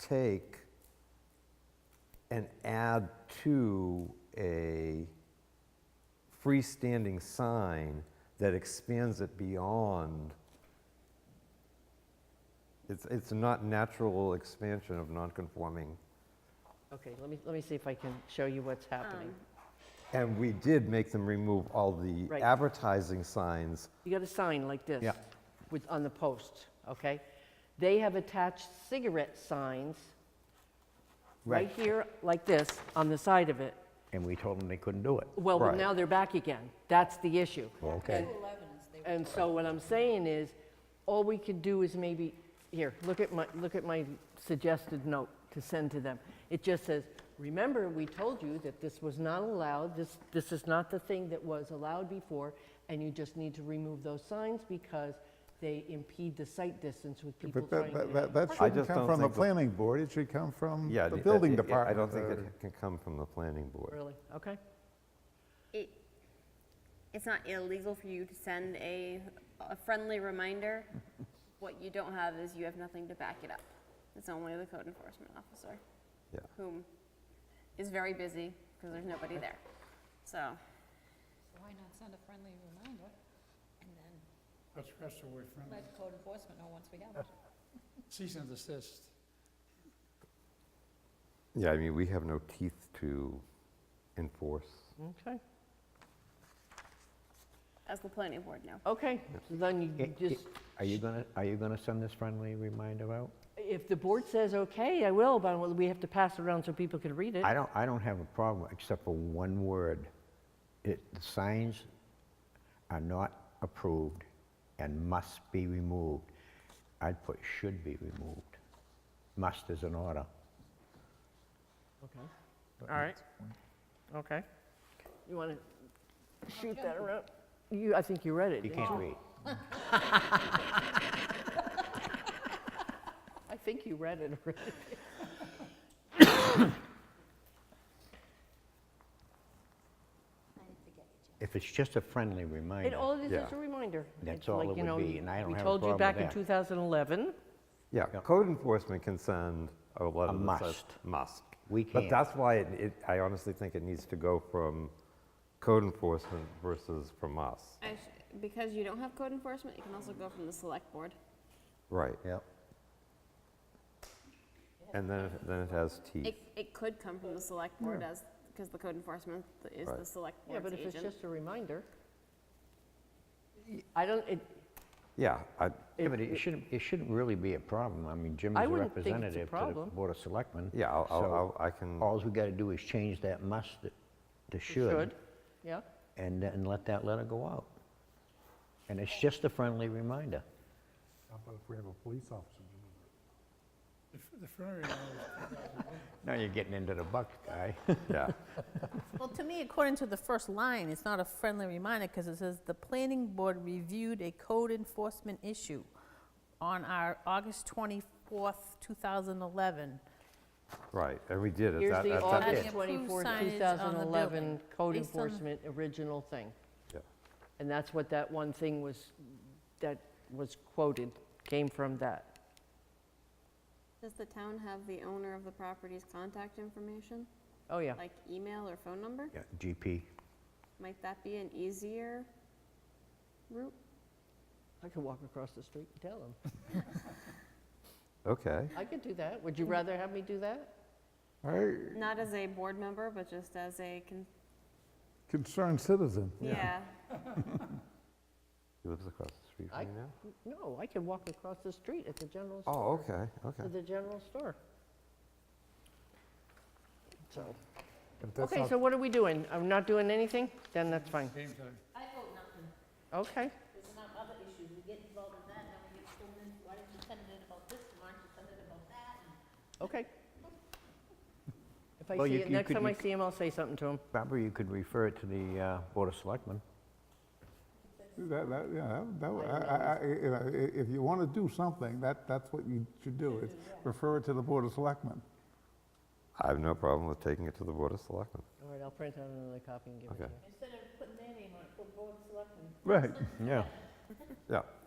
take and add to a freestanding sign that expands it beyond. It's, it's not natural expansion of nonconforming. Okay, let me, let me see if I can show you what's happening. And we did make them remove all the Right. advertising signs. You got a sign like this. Yeah. With, on the post, okay? They have attached cigarette signs right here, like this, on the side of it. And we told them they couldn't do it. Well, but Right. now they're back again. That's the issue. Okay. And so what I'm saying is, all we could do is maybe, here, look at my, look at my suggested note to send to them. It just says, remember, we told you that this was not allowed, this, this is not the thing that was allowed before, and you just need to remove those signs because they impede the sight distance with people But that, trying that- to. that- that I shouldn't just come don't from the think the- planning board, it should come from Yeah, the it- building it- it- department. I don't think or- it can come from the planning board. Really, okay? It, it's not illegal for you to send a, a friendly reminder. What you don't have is you have nothing to back it up. It's only the code enforcement officer, Yeah. whom is very busy because there's nobody there. So, Why not send a friendly reminder and then That's, that's the way friendly, let code enforcement know once we have it? cease and desist. Yeah, I mean, we have no teeth to enforce. Okay, as the planning board know. okay, so then you It- it- just, Are you gonna, are you gonna send this friendly reminder out? if the board says, okay, I will, but we have to pass it around so people can read it. I don't, I don't have a problem, except for one word. It, the signs are not approved and must be removed. I'd put should be removed. Must is an order. Okay. All right. Okay. You want to shoot that around? You, I think you read it. You didn't can't read. I think you read it already. If it's just a friendly And reminder, all it is is a reminder. That's It's all like, it you would know, be, and I don't have We a told you problem back with in that. 2011, Yeah, Mm-hmm. Yeah. code enforcement can send a letter that says. must. Must. We But can't. that's why it, it, I honestly think it needs to go from code enforcement versus from us. because you don't have code enforcement, you can also go from the select board. Right. yep. And then, it- then it has teeth. It, it could come from the select board as, because the code enforcement is Right. the select yeah, board's but if it's agent. just a reminder, I don't, it, Yeah, I, Yeah, but it shouldn't, it shouldn't really be a problem. I mean, Jim I is a wouldn't think it's a representative to the problem. Board of Selectmen. yeah, I'll, I'll- so I'll, I can, Alls we gotta do is change that must to should, should, yeah? and then let that letter go out. And it's just a friendly reminder. How about if we have a police officer? The f- The friendly reminder, Now you're getting into the buck, guy. yeah. Well, to me, according to the first line, it's not a friendly reminder because it says, "The planning board reviewed a code enforcement issue on our August 24th, 2011." Right, and we did. it. Here's That- the that- that- August it. 24, Approved signage on the 2011 building, code based on- enforcement original thing. Yeah. And that's what that one thing was, that was quoted, came from that. Does the town have the owner of the property's contact information, Oh, yeah. like email or phone number? Yeah, GP. Might that be an easier route? I could walk across the street and tell them. Okay, I could do that. Would you rather have me do that? Not as a board member, but just as a, con- Concerned citizen. yeah. he lives across the street I- from you now? No, I could walk across the street at the general store. Oh, okay, okay. To the general store. So, If that's okay, not- so what are we doing? I'm not doing anything? Then that's fine. game time. Okay. There's enough other issues. We get involved in that, now we get pulled in, why didn't you send it about this, why didn't you send it about that? Okay. If I Well, see you- it, you next could- time you I could- see him, I'll say something to him. Barbara, you could refer it to the uh, Board of Selectmen. That, that, yeah, that- that, would- I, I- I- you know, i- if you want to do something, that, that's what you should do, is refer it to the Board of Selectmen. I have no problem with taking it to the Board of Selectmen. All right, I'll print out another copy and give it to Okay. you. Instead of putting their name on it, put board of selectmen. Right. Yeah. Yeah,